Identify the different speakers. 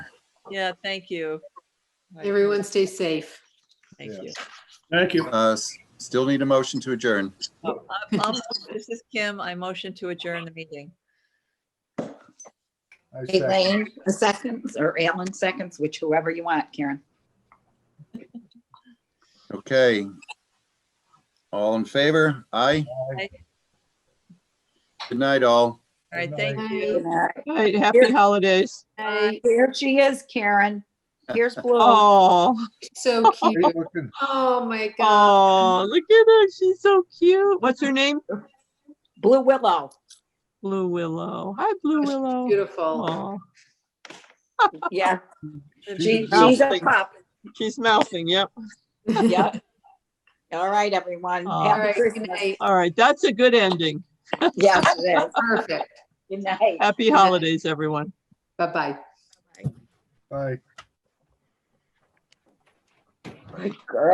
Speaker 1: Yeah, thank you.
Speaker 2: Everyone stay safe.
Speaker 1: Thank you.
Speaker 3: Thank you.
Speaker 4: Uh, s- Still need a motion to adjourn.
Speaker 1: Oh, I'm- I'm- This is Kim. I motion to adjourn the meeting.
Speaker 3: I second.
Speaker 5: Elaine, a seconds, or Alan seconds, which whoever you want, Karen.
Speaker 4: Okay. All in favor? Aye.
Speaker 1: Aye.
Speaker 4: Good night, all.
Speaker 1: All right,
Speaker 3: Good
Speaker 1: thank
Speaker 2: night.
Speaker 1: you.
Speaker 6: All right, happy holidays.
Speaker 5: Uh, Here she is, Karen. Here's Blue.
Speaker 6: Oh,
Speaker 2: So
Speaker 3: Hey,
Speaker 2: cute.
Speaker 3: looking-
Speaker 2: Oh, my God.
Speaker 6: oh, look at her. She's so cute. What's her name?
Speaker 5: Blue Willow.
Speaker 6: Blue Willow. Hi, Blue Willow.
Speaker 2: Beautiful.
Speaker 6: Oh,
Speaker 5: Yeah, she,
Speaker 3: she's-
Speaker 5: she's a pup.
Speaker 6: she's mouthing. Yep.
Speaker 5: Yeah. All right, everyone.
Speaker 6: Aw.
Speaker 2: All
Speaker 5: Have a
Speaker 2: right,
Speaker 5: good
Speaker 2: good
Speaker 5: night.
Speaker 2: night.
Speaker 6: All right. That's a good ending.
Speaker 5: Yes, it is.
Speaker 2: Perfect.
Speaker 5: Good night.
Speaker 6: Happy holidays, everyone.
Speaker 2: Bye-bye.
Speaker 3: Bye.
Speaker 5: Good girl.